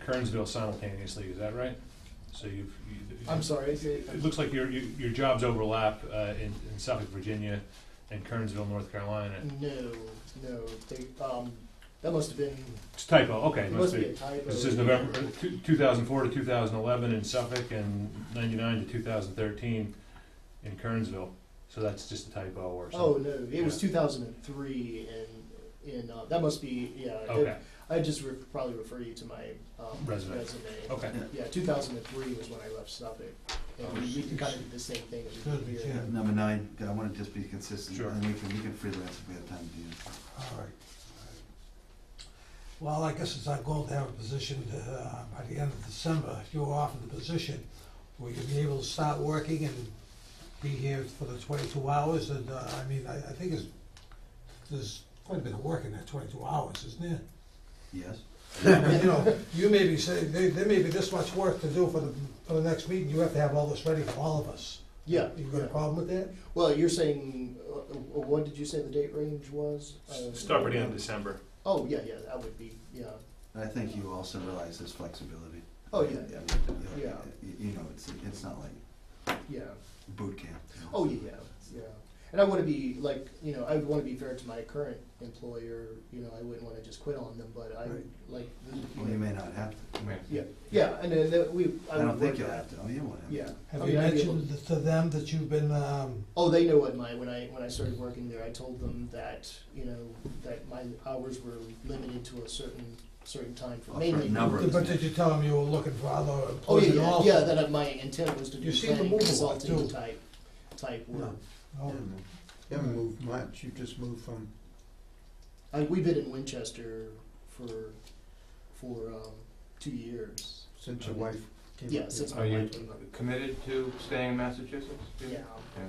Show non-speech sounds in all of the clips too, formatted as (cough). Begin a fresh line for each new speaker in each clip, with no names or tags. Kernsville simultaneously, is that right? So you've. you-
I'm sorry.
It looks like your, your your jobs overlap uh, in in Suffolk, Virginia and Kernsville, North Carolina.
No, no, they, um, that must have been,
It's typo, okay,
it
must
must be a
be.
typo.
This is November, uh, two- 2004 to 2011 in Suffolk and 99 to 2013 in Kernsville. So that's just a typo or
Oh,
something.
no, it was two thousand and three and, and, uh, that must be, yeah. that-
Okay,
I just re- probably refer you to my, um,
Resume.
resume.
okay. Oh,
Yeah, two thousand and three was when I left Suffolk, and we- we can kind of do the same thing that we did here.
Number nine, I wanna just be consistent,
Sure.
and we can, we can freelance if we have time to do this.
All right. Well, I guess it's our goal to have a position uh, by the end of December, if you were offered the position, where you'd be able to start working and be here for the twenty-two hours, and, uh, I mean, I, I think it's, there's quite a bit of work in that twenty-two hours, isn't there?
Yes?
(laughs)
I mean, You know, you may be saying, there, there may be this much work to do for the, for the next meeting, you have to have all this ready for all of us.
Yeah,
You got a
yeah.
problem with that?
Well, you're saying, uh, uh, what did you say the date range was? Uh,
Start by the end of December.
Oh, yeah, yeah, that would be, yeah,
I think you also realize there's flexibility.
Oh, yeah.
You know,
Yeah.
You you know, it's, it's not like
yeah.
boot camp. you know.
Oh yeah, yeah. And I want to be like you know I would want to be fair to my current employer. You know I wouldn't want to just quit on them, but I
Right.
like
Well, you may not have to.
yeah yeah. And then that we I,
I don't
would
think
work
you'll
that.
have to, oh, you won't have to.
Yeah. I
Have
mean,
you
I'd be able-
mentioned to them that you've been, um,
Oh, they know what my when I when I started working there, I told them that you know that my hours were limited to a certain certain time for
Oh, A certain
mainly.
number. Right.
But did you tell them you were looking for other
Oh
employees
yeah,
and
yeah,
all?
yeah. That I- my intent was to do
You seem to
planning
move a lot,
consulting
too.
type type work.
Oh,
You haven't moved much, you just moved from,
I, we've been in Winchester for for um, two years.
since your wife came up here.
Yeah, since
Are
my
you-
wife came up.
committed to staying in Massachusetts? do you?
Yeah,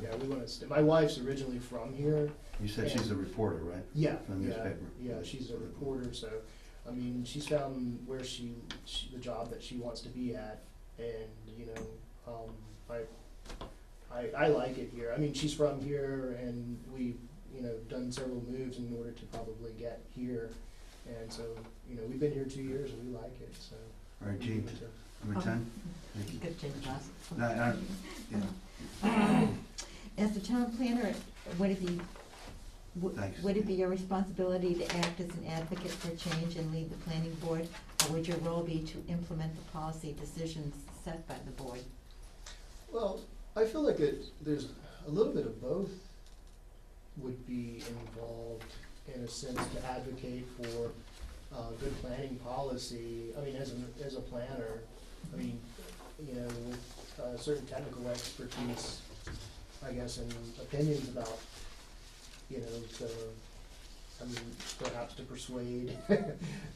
yeah, we want to stay. My wife's originally from here.
You said she's a reporter, right?
Yeah,
From
yeah,
newspaper.
yeah. She's a reporter, so I mean, she's found where she, she the job that she wants to be at, and you know, um, I, I, I like it here. I mean, she's from here, and we've you know done several moves in order to probably get here, and so you know we've been here two years and we like it. So
All right,
we
Gene,
want to-
number
Um,
ten? Thank you.
Good change, boss.
No, I don't- yeah.
As the town planner, would it be, would
Thanks.
would it be your responsibility to act as an advocate for change and lead the planning board? Or would your role be to implement the policy decisions set by the board?
Well, I feel like it, there's a little bit of both would be involved in a sense to advocate for uh, good planning policy. I mean, as a, as a planner, I mean, you know, with uh, certain technical expertise, I guess, and opinions about, you know, the, I mean, perhaps to persuade, (laughs)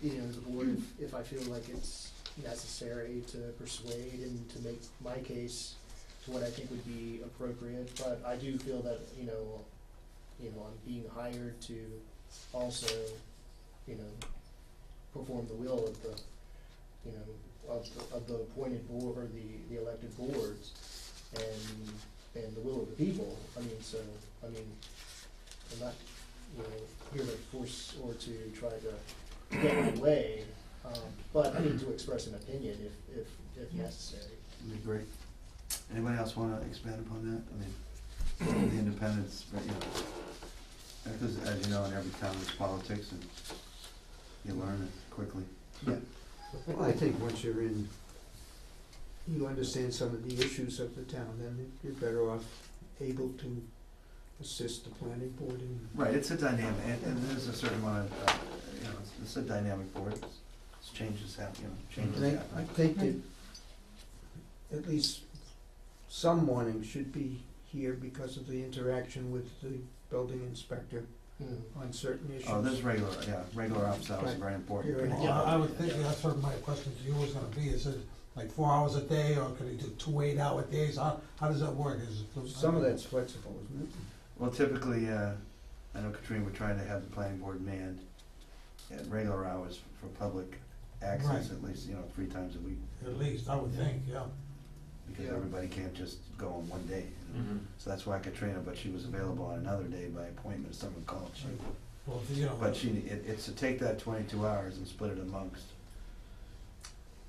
you know, the board if- if I feel like it's necessary to persuade and to make my case to what I think would be appropriate, but I do feel that, you know, you know, I'm being hired to also, you know, perform the will of the, you know, of, the- of the appointed board, or the, the elected boards, and, and the will of the people, I mean, so, I mean, I'm not, you know, here to force or to try to get my way, um, but I mean, to express an opinion if, if, if necessary.
That'd be great. Anybody else wanna expand upon that? I mean, the independence, but, you know, because as you know, in every town there's politics and you learn it quickly.
Well, I think once you're in, you understand some of the issues of the town, then you're better off able to assist the planning board in.
Right, it's a dynamic, and, and there's a certain amount of, uh, you know, it's, it's a dynamic board, it's, it's changes happen, you know, changes
And I, I
happen.
think that at least some warning should be here because of the interaction with the building inspector on certain issues.
Oh, there's regular, yeah, regular office hours are very important.
Right.
Well, I I would think that's what my question to you was gonna be, is it like four hours a day, or could he do two eight-hour days, how, how does that work? Is it-
Some of that's flexible, isn't it?
Well, typically, uh, I know Katrina, we're trying to have the planning board manned at regular hours for public access,
Right.
at least, you know, three times a week,
At least, I would think, yeah.
because
Yeah.
everybody can't just go on one day. you
Mm-hmm.
know. So that's why Katrina, but she was available on another day by appointment, if someone called, she
Well, you know,
But she, it, it's to take that twenty-two hours and split it amongst